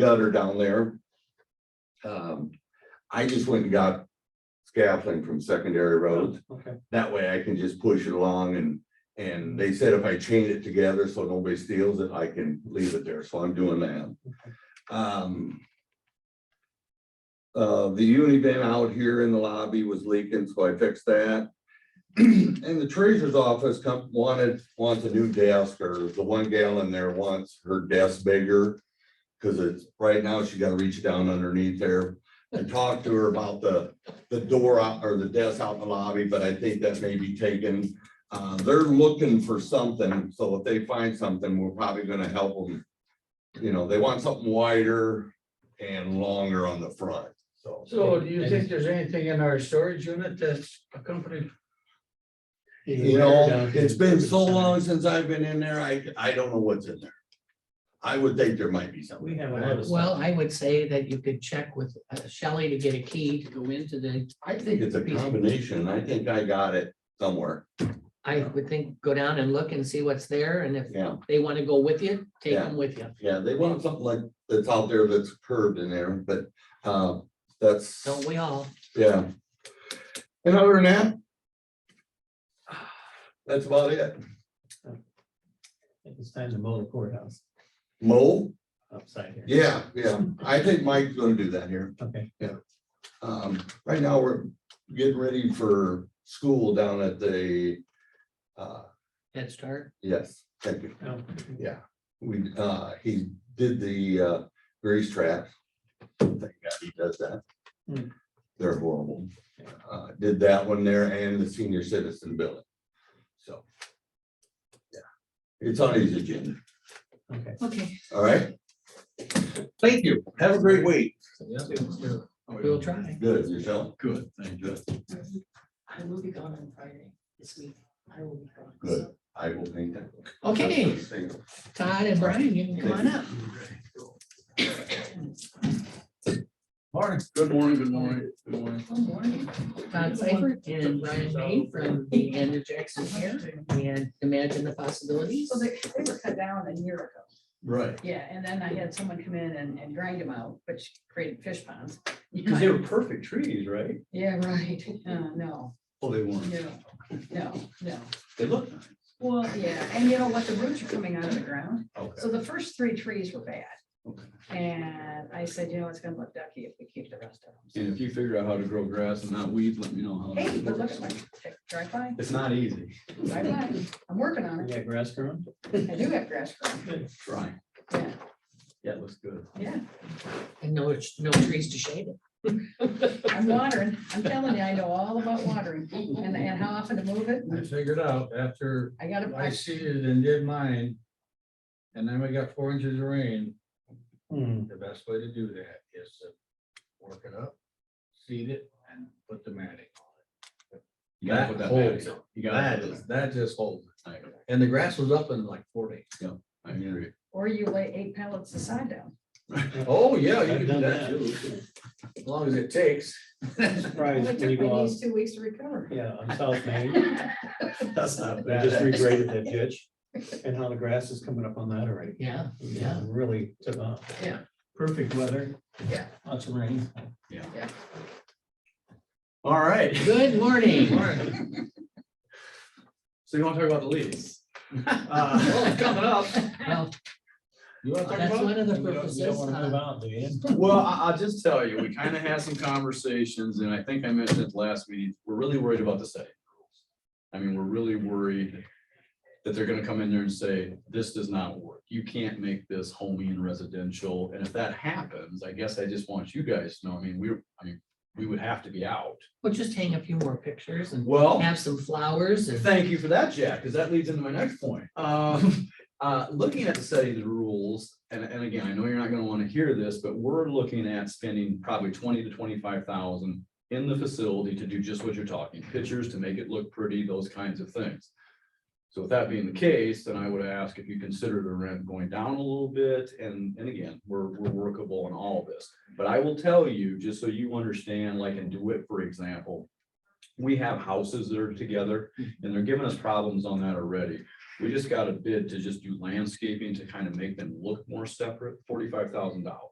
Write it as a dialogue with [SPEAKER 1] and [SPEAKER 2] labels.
[SPEAKER 1] gutter down there. Um, I just went and got scaffolding from secondary roads.
[SPEAKER 2] Okay,
[SPEAKER 1] That way I can just push it along and, and they said if I chain it together so nobody steals it, I can leave it there, so I'm doing that. Um. Uh, the uni van out here in the lobby was leaking, so I fixed that. And the treasurer's office come, wanted, wants a new desk, or the one gal in there wants her desk bigger. Cause it's, right now she gotta reach down underneath there. I talked to her about the the door out or the desk out in the lobby, but I think that may be taken. Uh, they're looking for something, so if they find something, we're probably gonna help them. You know, they want something wider and longer on the front, so.
[SPEAKER 3] So do you think there's anything in our storage unit that's a company?
[SPEAKER 1] You know, it's been so long since I've been in there, I, I don't know what's in there. I would think there might be
[SPEAKER 2] we
[SPEAKER 1] something.
[SPEAKER 2] have a lot of.
[SPEAKER 4] Well,
[SPEAKER 2] stuff.
[SPEAKER 4] I would say that you could check with uh, Shelley to get a key to go into the,
[SPEAKER 1] I think it's a combination, I think I got it somewhere,
[SPEAKER 4] I would think, go down and look and see what's there, and if
[SPEAKER 1] yeah,
[SPEAKER 4] they want to go with you, take them with you.
[SPEAKER 1] yeah, they want something like, that's out there that's curved in there, but, uh, that's.
[SPEAKER 4] Don't we all?
[SPEAKER 1] Yeah. And other than that. That's about it.
[SPEAKER 2] I think It's time to mow the courthouse
[SPEAKER 1] Mo?
[SPEAKER 2] upside here.
[SPEAKER 1] Yeah, yeah. I think Mike's gonna do that here.
[SPEAKER 2] Okay,
[SPEAKER 1] Um, right now, we're getting ready for school down at the, uh,
[SPEAKER 4] Head start.
[SPEAKER 1] yes, thank you.
[SPEAKER 2] no,
[SPEAKER 1] Yeah, we, uh, he did the, uh, grease trap. Thank God he does that.
[SPEAKER 2] Hmm.
[SPEAKER 1] They're horrible. Uh, did that one there and the senior citizen building. So. Yeah, it's on his agenda.
[SPEAKER 2] okay.
[SPEAKER 4] Okay.
[SPEAKER 1] All right. Thank you. Have a great week.
[SPEAKER 4] We'll try.
[SPEAKER 1] Good, yourself.
[SPEAKER 5] Oh, Good, thank you.
[SPEAKER 6] I will be gone on Friday this week. I will be gone.
[SPEAKER 1] Good. I will think that.
[SPEAKER 4] Okay, Todd and Brian, you can come on up.
[SPEAKER 5] Morning. Good morning, good morning, good morning.
[SPEAKER 6] Good morning.
[SPEAKER 4] Todd Seifert and Brian May from the Andrew Jackson Hair and Imagine the Possibilities.
[SPEAKER 6] So they, they were cut down a year ago.
[SPEAKER 5] Right.
[SPEAKER 6] Yeah, and then I had someone come in and, and grind them out, which created fish ponds.
[SPEAKER 2] Because they were perfect trees, right?
[SPEAKER 6] Yeah, right. Uh, no,
[SPEAKER 5] Oh, they weren't.
[SPEAKER 6] no, no, no.
[SPEAKER 5] They look nice.
[SPEAKER 6] Well, yeah, and you know what? The roots are coming out of the ground.
[SPEAKER 5] Okay.
[SPEAKER 6] So the first three trees were bad.
[SPEAKER 5] Okay.
[SPEAKER 6] And I said, you know, it's gonna look ducky if we keep the rest of them.
[SPEAKER 5] And if you figure out how to grow grass and not weeds, let me know how.
[SPEAKER 6] Hey,
[SPEAKER 5] it
[SPEAKER 6] but look
[SPEAKER 5] works.
[SPEAKER 6] at my, drive by,
[SPEAKER 5] It's not easy.
[SPEAKER 6] drive by. I'm working on it.
[SPEAKER 2] Yeah, grass growing.
[SPEAKER 6] I do have grass growing.
[SPEAKER 5] Try.
[SPEAKER 6] Yeah,
[SPEAKER 5] Yeah, it looks good.
[SPEAKER 6] yeah.
[SPEAKER 4] And no, no trees to shade it.
[SPEAKER 6] I'm watering. I'm telling you, I know all about watering and, and how often to move it.
[SPEAKER 3] I figured out after
[SPEAKER 6] I gotta,
[SPEAKER 3] I
[SPEAKER 6] I-
[SPEAKER 3] seeded and did mine. And then we got four inches of rain,
[SPEAKER 2] Hmm,
[SPEAKER 3] the best way to do that is to work it up, seed it and put the matting
[SPEAKER 5] You
[SPEAKER 3] on it.
[SPEAKER 5] gotta
[SPEAKER 3] That
[SPEAKER 5] put that
[SPEAKER 3] holds
[SPEAKER 5] back.
[SPEAKER 3] it.
[SPEAKER 5] You
[SPEAKER 3] That
[SPEAKER 5] gotta.
[SPEAKER 3] is, that just holds it.
[SPEAKER 5] put that back.
[SPEAKER 3] And the grass was up in like four days.
[SPEAKER 5] I I agree.
[SPEAKER 6] or you lay eight pallets aside down.
[SPEAKER 3] Oh, yeah, you can
[SPEAKER 2] I've
[SPEAKER 3] do
[SPEAKER 2] done
[SPEAKER 3] that
[SPEAKER 2] that.
[SPEAKER 3] too, as long as it takes.
[SPEAKER 6] Well, It
[SPEAKER 2] Surprised when you
[SPEAKER 6] took
[SPEAKER 2] go
[SPEAKER 6] me
[SPEAKER 2] out,
[SPEAKER 6] these two weeks to recover.
[SPEAKER 2] yeah, on South Main,
[SPEAKER 6] It
[SPEAKER 5] That's not
[SPEAKER 2] they just regraded that ditch and how the grass is coming up on that already.
[SPEAKER 4] Yeah,
[SPEAKER 2] Yeah,
[SPEAKER 4] yeah.
[SPEAKER 2] really took off.
[SPEAKER 6] Yeah.
[SPEAKER 2] Perfect weather.
[SPEAKER 6] Yeah.
[SPEAKER 2] Lots of rain.
[SPEAKER 5] All right.
[SPEAKER 4] Good morning.
[SPEAKER 5] So you want to talk about the leaves?
[SPEAKER 2] Uh,
[SPEAKER 5] it's coming up.
[SPEAKER 4] Well,
[SPEAKER 3] You wanna talk
[SPEAKER 4] That's
[SPEAKER 3] about it?
[SPEAKER 4] one of
[SPEAKER 2] You
[SPEAKER 4] the
[SPEAKER 2] don't want to move
[SPEAKER 4] purposes.
[SPEAKER 2] out, do you?
[SPEAKER 5] Well, I, I'll just tell you, we kind of had some conversations and I think I mentioned it last meeting, we're really worried about the setting rules. I mean, we're really worried that they're gonna come in there and say, this does not work. You can't make this homey and residential. And if that happens, I guess I just want you guys to know, I mean, we're, I mean, we would have to be out.
[SPEAKER 4] We'll just hang a few more pictures and
[SPEAKER 5] Well,
[SPEAKER 4] have some flowers and.
[SPEAKER 5] Thank you for that, Jack, because that leads into my next point. Um, uh, looking at the setting of the rules, and, and again, I know you're not gonna wanna hear this, but we're looking at spending probably twenty to twenty-five thousand in the facility to do just what you're talking, pictures to make it look pretty, those kinds of things. So with that being the case, then I would ask if you consider the rent going down a little bit, and, and again, we're, we're workable in all of this. But I will tell you, just so you understand, like in DeWitt, for example, we have houses that are together, and they're giving us problems on that already. We just got a bid to just do landscaping to kind of make them look more separate, forty-five thousand dollars.